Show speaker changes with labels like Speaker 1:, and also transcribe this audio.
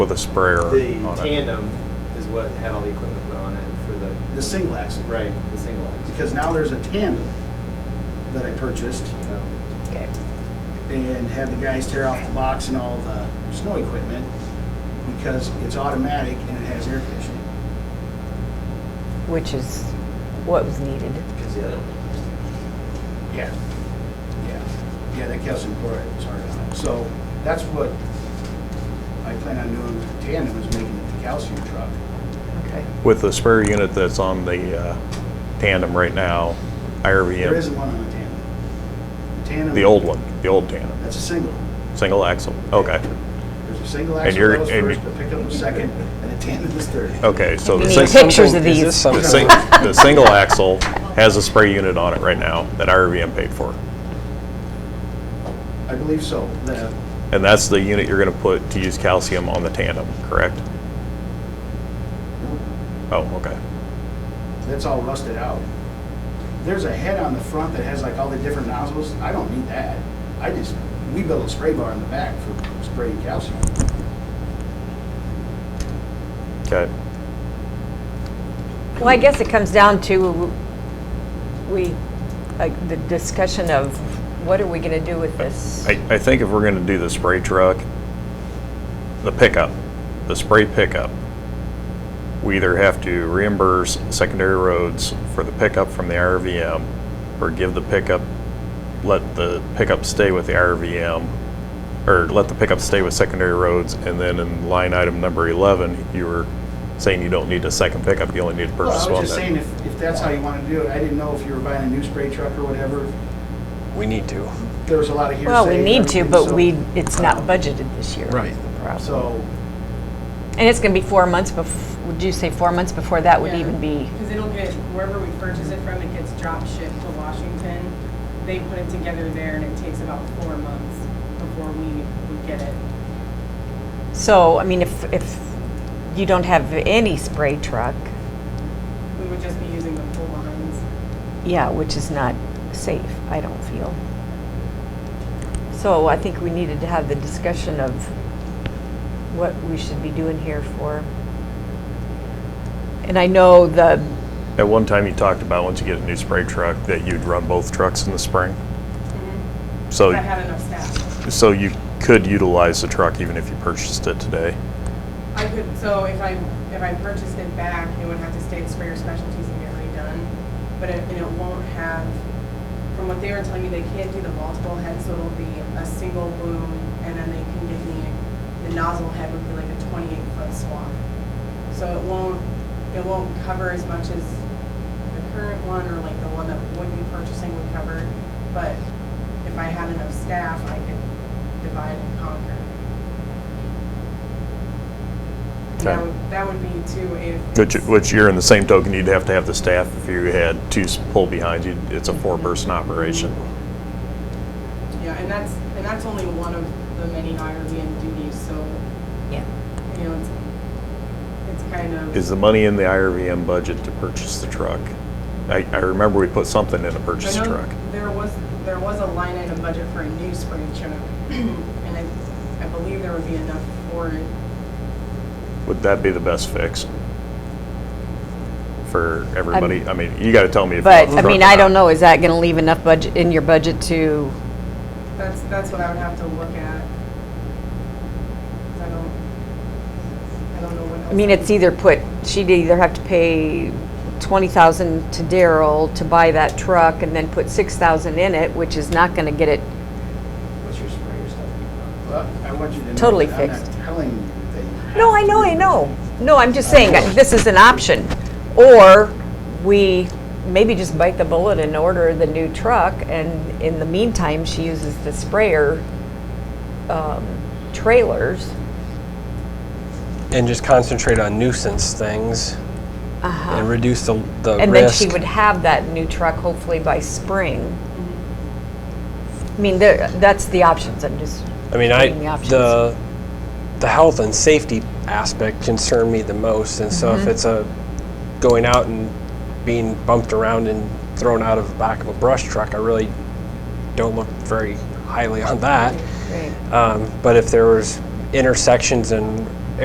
Speaker 1: with a sprayer
Speaker 2: The
Speaker 1: on it.
Speaker 2: tandem is what had all the equipment put on it for the,
Speaker 3: the single axle.
Speaker 2: right, the single axle.
Speaker 3: Because now there's a tandem that I purchased
Speaker 2: So,
Speaker 4: Okay.
Speaker 3: and had the guys tear off the box and all the snow equipment because it's automatic and it has air conditioning.
Speaker 4: Which is what was needed.
Speaker 2: Because the other one.
Speaker 3: Yeah. Yeah. Yeah, that calcium chloride was hard on it. So that's what I plan on doing with the tandem is making it the calcium truck.
Speaker 4: Okay.
Speaker 1: With the sprayer unit that's on the uh, tandem right now,
Speaker 3: There isn't
Speaker 1: IRVM,
Speaker 3: one on the tandem. The tandem.
Speaker 1: the old one, the old tandem,
Speaker 3: That's a single.
Speaker 1: single axle. Okay,
Speaker 3: There's a single
Speaker 1: And
Speaker 3: axle
Speaker 1: you're-
Speaker 3: that was
Speaker 1: and
Speaker 3: first,
Speaker 1: you- Oh.
Speaker 3: the pickup was second, and the tandem was third.
Speaker 1: okay, so
Speaker 4: We
Speaker 1: the
Speaker 4: need
Speaker 1: sing-
Speaker 4: pictures of
Speaker 5: Is this
Speaker 4: these.
Speaker 1: the sing- the single axle has a spray unit on it right now that IRVM paid for.
Speaker 3: I believe so. The-
Speaker 1: And that's the unit you're gonna put to use calcium on the tandem, correct? Oh, okay.
Speaker 3: That's all rusted out. There's a head on the front that has like all the different nozzles. I don't need that. I just, we built a spray bar in the back for spraying calcium.
Speaker 1: Okay.
Speaker 4: Well, I guess it comes down to, we, like, the discussion of what are we going to do with this?
Speaker 1: I, I think if we're gonna do the spray truck, the pickup, the spray pickup, we either have to reimburse secondary roads for the pickup from the IRVM, or give the pickup, let the pickup stay with the IRVM, or let the pickup stay with secondary roads, and then in line item number eleven, you were saying you don't need a second pickup, you only need to
Speaker 3: Well,
Speaker 1: purchase
Speaker 3: I
Speaker 1: one.
Speaker 3: was just
Speaker 1: then.
Speaker 3: saying, if, if that's how you want to do it, I didn't know if you were buying a new spray truck or whatever.
Speaker 5: We need to.
Speaker 3: There was a lot of hearsay.
Speaker 4: Well, we
Speaker 3: and
Speaker 4: need to,
Speaker 3: everything,
Speaker 4: but
Speaker 3: so-
Speaker 4: we, it's not budgeted this year.
Speaker 5: Right.
Speaker 4: is the problem.
Speaker 3: So,
Speaker 4: And it's going to be four months bef, would you say four months before that would even be?
Speaker 6: Because it'll get, wherever we purchase it from, it gets drop shipped to Washington. They put it together there and it takes about four months before we would get it.
Speaker 4: So, I mean, if, if you don't have any spray truck,
Speaker 6: We would just be using the full lines.
Speaker 4: yeah, which is not safe, I don't feel. So I think we needed to have the discussion of what we should be doing here for. And I know the,
Speaker 1: At one time, you talked about once you get a new spray truck, that you'd run both trucks in the spring. So. Oh,
Speaker 6: But I had enough staff.
Speaker 1: So you could utilize the truck even if you purchased it today?
Speaker 6: I could, so if I, if I purchased it back, it would have to stay at Sprayer Specialties and get redone. But it, and it won't have, from what they were telling me, they can't do the multiple heads, so it'll be a single boom and then they can give me, the nozzle head would be like a twenty-eight foot swap. So it won't, it won't cover as much as the current one or like the one that would be purchasing would cover. But if I had enough staff, I could divide and conquer. And
Speaker 1: Okay.
Speaker 6: That would, that would be too if.
Speaker 1: Which, which you're in the same token, you'd have to have the staff if you had two s- pull behind you. It's a four-person operation.
Speaker 6: Yeah, and that's, and that's only one of the many IRBN duties, so,
Speaker 4: yeah,
Speaker 6: you know, it's, it's kind of.
Speaker 1: Is the money in the IRVM budget to purchase the truck? I, I remember we put something in to purchase
Speaker 6: I
Speaker 1: the
Speaker 6: know
Speaker 1: truck.
Speaker 6: There was, there was a line item budget for a new spray truck,
Speaker 4: Mm-hmm.
Speaker 6: and I, I believe there would be enough for it.
Speaker 1: Would that be the best fix? For everybody? I mean, you gotta tell me if you
Speaker 4: but,
Speaker 1: want the
Speaker 4: I mean,
Speaker 1: truck or
Speaker 4: I don't
Speaker 1: not.
Speaker 4: know, is that gonna leave enough budget, in your budget to,
Speaker 6: That's, that's what I would have to look at. 'Cause I don't, I don't know what else.
Speaker 4: I mean, it's either put, she'd either have to pay twenty thousand to Daryl to buy that truck and then put six thousand in it, which is not gonna get it
Speaker 2: What's your sprayer stuff?
Speaker 3: well, I want you to know.
Speaker 4: Totally
Speaker 3: that I'm not
Speaker 4: fixed.
Speaker 3: telling you that you have
Speaker 4: No, I
Speaker 3: to
Speaker 4: know,
Speaker 3: do
Speaker 4: I
Speaker 3: it.
Speaker 4: know. No, I'm just saying, uh, this is an option. Or we maybe just bite the bullet and order the new truck, and in the meantime, she uses the sprayer um, trailers.
Speaker 5: And just concentrate on nuisance things and reduce the, the
Speaker 4: Uh-huh. And then
Speaker 5: risk.
Speaker 4: she would have that new truck hopefully by spring. I mean, there- that's the options, I'm just,
Speaker 5: I mean, I,
Speaker 4: giving the options.
Speaker 5: the, the health and safety aspect concern me the most. And so
Speaker 4: Mm-hmm.
Speaker 5: if it's a going out and being bumped around and thrown out of the back of a brush truck, I really don't look very highly on that.
Speaker 4: right.
Speaker 5: Um, but if there was intersections and